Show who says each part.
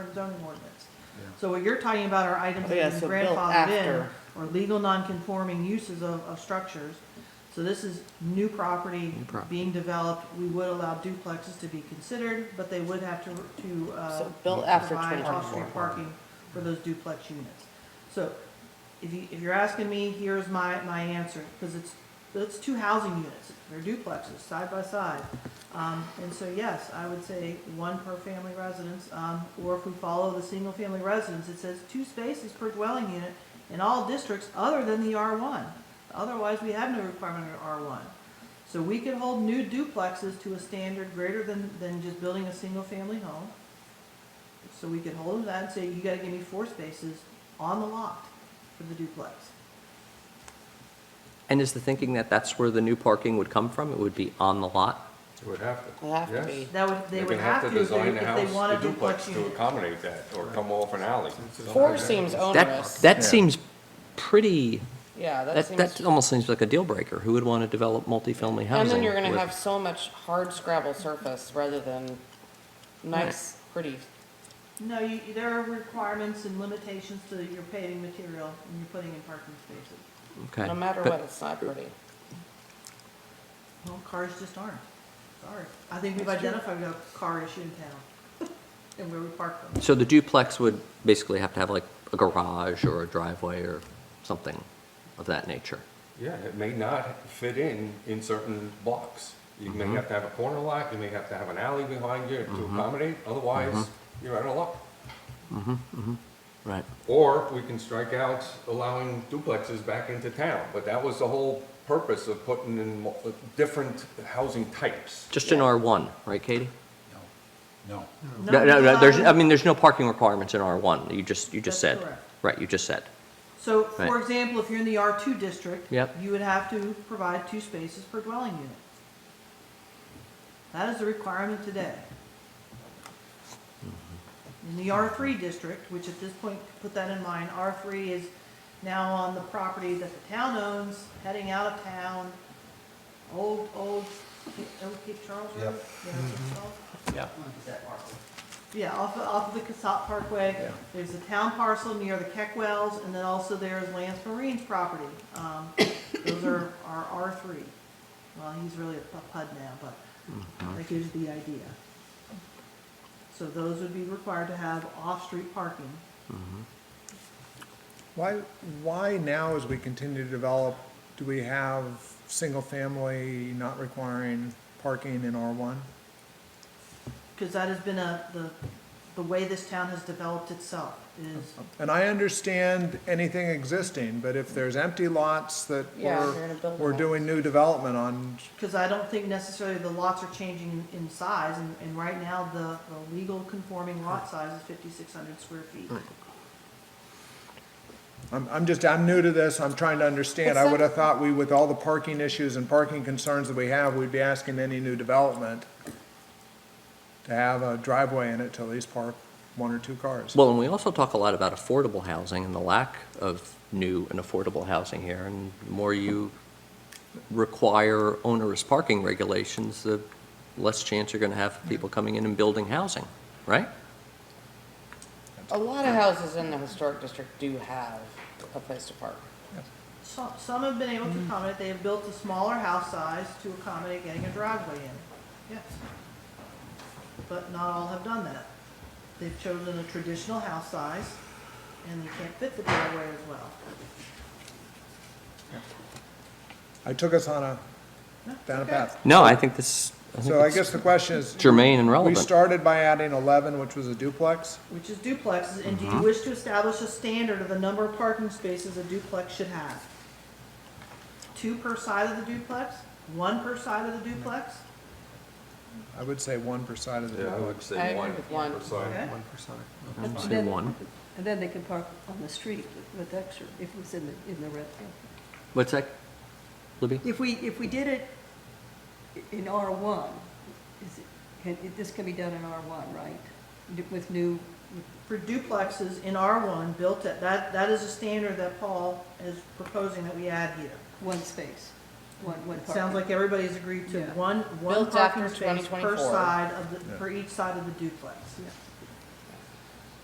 Speaker 1: current zoning ordinance.
Speaker 2: Yeah.
Speaker 1: So what you're talking about are items
Speaker 3: Oh, yeah,
Speaker 1: that have been
Speaker 3: so built
Speaker 1: grandfathered in,
Speaker 3: after.
Speaker 1: or legal non-conforming uses of, of structures. So this is new property
Speaker 4: New property.
Speaker 1: being developed, we would allow duplexes to be considered, but they would have to, to, uh,
Speaker 3: So built after
Speaker 1: provide
Speaker 3: 2024.
Speaker 1: off-street parking for those duplex units. So if you, if you're asking me, here's my, my answer, because it's, it's two housing units, they're duplexes, side by side. Um, and so yes, I would say one per family residence, um, or if we follow the single-family residence, it says two spaces per dwelling unit in all districts other than the R one. Otherwise, we have no requirement under R one. So we could hold new duplexes to a standard greater than, than just building a single-family home. So we could hold them to that and say, you gotta give me four spaces on the lot for the duplex.
Speaker 4: And is the thinking that that's where the new parking would come from? It would be on the lot?
Speaker 2: It would have to.
Speaker 3: Would have to
Speaker 2: yes.
Speaker 3: be.
Speaker 1: That would, they
Speaker 5: They're
Speaker 1: would
Speaker 5: gonna have to
Speaker 1: if they,
Speaker 5: design the
Speaker 1: if
Speaker 5: house,
Speaker 1: they want
Speaker 5: the
Speaker 1: a duplex
Speaker 5: duplex to
Speaker 1: unit.
Speaker 5: accommodate that, or come off an alley.
Speaker 3: Four seems
Speaker 4: That,
Speaker 3: onerous.
Speaker 4: that
Speaker 2: Yeah.
Speaker 4: seems pretty,
Speaker 3: Yeah, that
Speaker 4: that,
Speaker 3: seems.
Speaker 4: that almost seems like a deal breaker. Who would want to develop multifamily housing?
Speaker 3: And then you're gonna
Speaker 4: with-
Speaker 3: have so much hard scrabble surface rather than nice, pretty.
Speaker 1: No, you, there are requirements and limitations to your paving material when you're putting in parking spaces.
Speaker 4: Okay.
Speaker 3: No matter
Speaker 4: But-
Speaker 3: what, it's not pretty.
Speaker 1: Well, cars just aren't, sorry. I think we've identified a car issue in town and where we park them.
Speaker 4: So the duplex would basically have to have like a garage or a driveway or something of that nature?
Speaker 5: Yeah, it may not fit in in certain blocks. You may have to have a corner lot, you may have to have an alley behind you to accommodate, otherwise, you're out of luck.
Speaker 4: Right.
Speaker 5: Or we can strike out allowing duplexes back into town, but that was the whole purpose of putting in mo- different housing types.
Speaker 4: Just in R1, right, Katie?
Speaker 2: No.
Speaker 4: No, no, no, there's, I
Speaker 1: Um,
Speaker 4: mean, there's no parking requirements in R1, you just, you just
Speaker 1: That's
Speaker 4: said.
Speaker 1: correct.
Speaker 4: Right, you just said.
Speaker 1: So, for
Speaker 4: Right.
Speaker 1: example, if you're in the R2 district.
Speaker 4: Yep.
Speaker 1: You would have to provide two spaces per dwelling unit. That is the requirement today.
Speaker 4: Mm-hmm.
Speaker 1: In the R3 district, which at this point, put that in mind, R3 is now on the property that the town owns, heading out of town, old, old, old Cape Charles Road?
Speaker 2: Yep.
Speaker 1: Yeah, that's what it's called.
Speaker 4: Yeah.
Speaker 1: Yeah, off, of- off of the Casat Parkway. There's a town parcel near the Keck Wells, and then also there's Lance Marine's property. Um, Those are, are R three. Well, he's really a pu- PUD now, but that gives the idea. So those would be required to have off-street parking.
Speaker 6: Why, why now, as we continue to develop, do we have single-family not requiring parking in R1?
Speaker 1: Because that has been a, the, the way this town has developed itself is,
Speaker 6: And I understand anything existing, but if there's empty lots that
Speaker 3: Yeah, you're gonna
Speaker 6: we're,
Speaker 3: build
Speaker 6: we're
Speaker 3: lots.
Speaker 6: doing new development on,
Speaker 1: because I don't think necessarily the lots are changing in size, and, and right now, the, the legal conforming lot size is fifty-six hundred square feet.
Speaker 6: I'm, I'm just, I'm new to this, I'm trying to understand.
Speaker 3: It's
Speaker 6: I
Speaker 3: not-
Speaker 6: would have thought we, with all the parking issues and parking concerns that we have, we'd be asking any new development to have a driveway in it to at least park one or two cars.
Speaker 4: Well, and we also talk a lot about affordable housing and the lack of new and affordable housing here. And the more you require onerous parking regulations, the less chance you're going to have of people coming in and building housing, right?
Speaker 3: A lot of houses in the historic district do have a place to park.
Speaker 1: Some, some have been able
Speaker 6: Mm.
Speaker 1: to accommodate, they have built a smaller house size to accommodate getting a driveway in, yes. But not all have done that. They've chosen a traditional house size, and you can't fit the driveway as well.
Speaker 6: I took us on a, down a path.
Speaker 4: No, I think this, I
Speaker 6: So I
Speaker 4: think
Speaker 6: guess
Speaker 4: it's
Speaker 6: the question is.
Speaker 4: germane and
Speaker 6: We
Speaker 4: relevant.
Speaker 6: started by adding eleven, which was a duplex.
Speaker 1: Which is duplexes, and do
Speaker 6: Mm-hmm.
Speaker 1: you wish to establish a standard of the number of parking spaces a duplex should have? Two per side of the duplex, one per side of the duplex,
Speaker 6: I would say one per side of the
Speaker 5: Yeah, I
Speaker 6: duplex.
Speaker 5: would
Speaker 3: I
Speaker 5: say
Speaker 3: agree
Speaker 5: one.
Speaker 3: with one.
Speaker 5: per side.
Speaker 1: okay?
Speaker 4: I'd
Speaker 7: But
Speaker 4: say
Speaker 7: then-
Speaker 4: one.
Speaker 7: And then they can park on the street with- with extra, if it was in the, in the red. zone.
Speaker 4: What's that, Libby?
Speaker 7: If we, if we did it i- in R1, is it, can, it- this can be done in R1, right? D- With new,
Speaker 1: for duplexes in R1 built at, that, that is a standard that Paul is proposing that we add here.
Speaker 7: one space, one, one
Speaker 1: It
Speaker 7: parking.
Speaker 1: sounds like everybody's agreed to
Speaker 7: Yeah.
Speaker 1: one, one
Speaker 3: Built after
Speaker 1: parking space per
Speaker 3: 2024.
Speaker 1: side of the, per each side of the duplex.
Speaker 7: Yeah.